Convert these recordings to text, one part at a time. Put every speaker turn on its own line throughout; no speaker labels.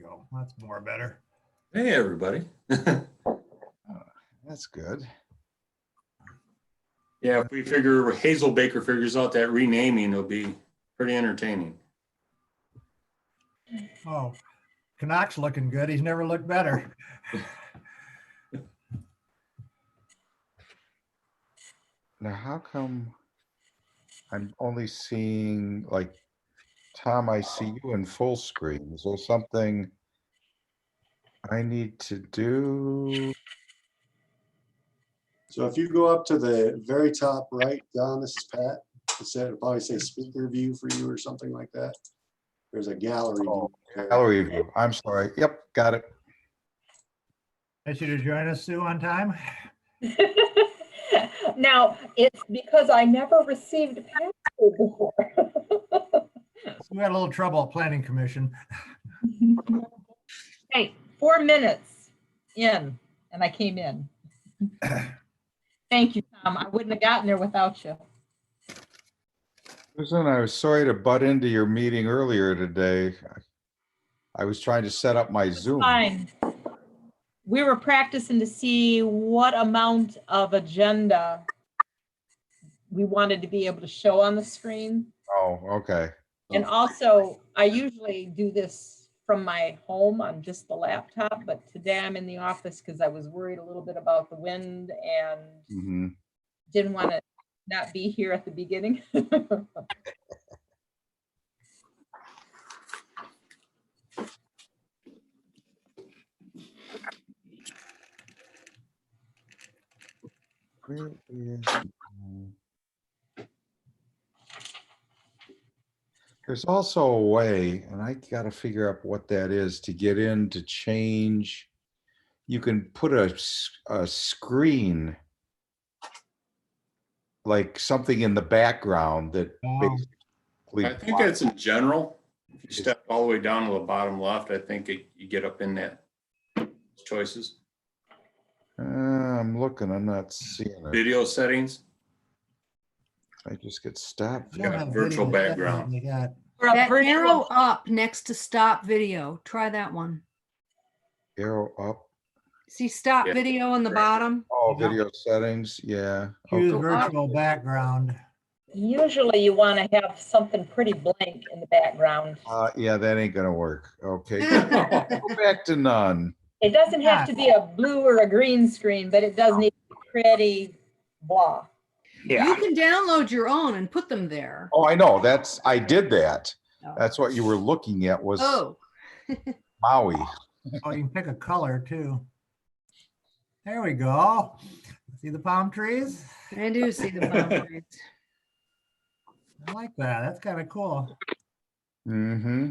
go. That's more better.
Hey, everybody.
That's good.
Yeah, if we figure Hazel Baker figures out that renaming, it'll be pretty entertaining.
Oh, Canuck's looking good. He's never looked better.
Now, how come I'm only seeing like, Tom, I see you in full screen. Is there something I need to do?
So if you go up to the very top right, Don, this is Pat, it said, it'll probably say speaker view for you or something like that. There's a gallery.
Oh,
view.
Gallery view. I'm sorry. Yep, got it.
Nice you to join us, Sue, on time.
Now, it's because I never received a password before.
We had a little trouble at planning commission.
Hey, four minutes in, and I came in. Thank you, Tom. I wouldn't have gotten there without you.
Susan, I was sorry to butt into your meeting earlier today. I- I was trying to set up my Zoom.
Fine. We were practicing to see what amount of agenda we wanted to be able to show on the screen.
Oh, okay.
And also, I usually do this from my home on just the laptop, but today I'm in the office because I was worried a little bit about the wind and
Mhm.
didn't want to not be here at the beginning.
Where is my- There's also a way, and I gotta figure out what that is, to get in to change. You can put a, s- a screen, like something in the background that
Oh,
basically.
I think that's in general. If you step all the way down to the bottom left, I think it- you get up in that choices,
Uh, I'm looking, I'm not seeing it.
video settings.
I just get stopped.
I don't have
virtual
video.
background.
They got-
Or a
That
virtual-
arrow up next to stop video, try that one.
Arrow up.
See stop
Yeah.
video on the
Right.
bottom?
Oh,
Yeah.
video settings, yeah.
Oh,
Use
okay.
virtual background.
Usually you want to have something pretty blank in the background.
Uh, yeah, that ain't gonna work. Okay. Go back to none.
It doesn't have to be a blue or a green screen, but it does need to be pretty blah.
You can download your own and put them there.
Oh, I know. That's, I did that.
Oh.
That's what you were looking at was
Oh,
Maui.
Oh, you can pick a color too. There we go. See the palm trees?
I do see the boundaries.
I like that. That's kind of cool.
Mm-hmm.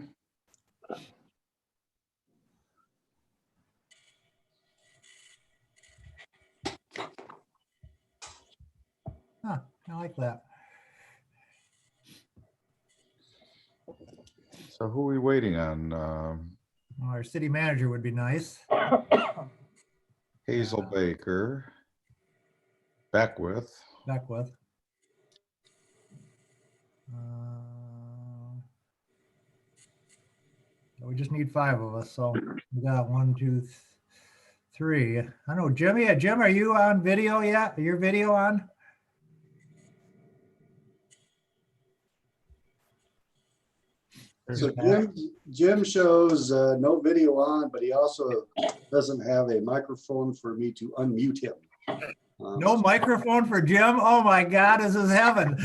I like that.
So who are we waiting on? Um,
Well, Our city manager would be nice.
Hazel
Uh.
Baker. Beckwith.
Beckwith. Uh, We just need five of us, so we got one, two, th- three. I know Jimmy, uh, Jim, are you on video yet? Are your video on? There's
So
Pat.
Jim, Jim shows uh, no video on, but he also doesn't have a microphone for me to unmute him. Um,
No microphone for Jim? Oh my God, this is heaven.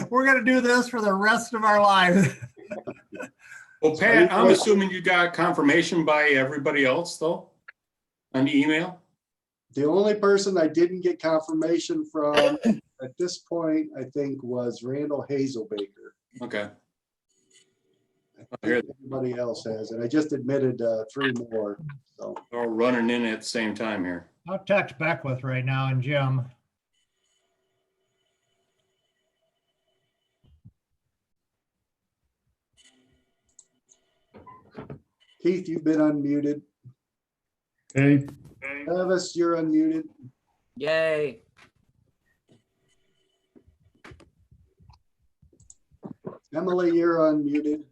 We're gonna do this for the rest of our lives.
Well, Pat, I'm assuming you got confirmation by everybody else though? On the email?
The only person I didn't get confirmation from at this point, I think, was Randall Hazelbaker.
Okay.
I think Everybody else has, and I just admitted uh, three more, so.
They're all running in at the same time here.
I'll text Beckwith right now and Jim.
Keith, you've been unmuted.
Hey,
Travis, you're unmuted.
Yay.
Emily, you're unmuted.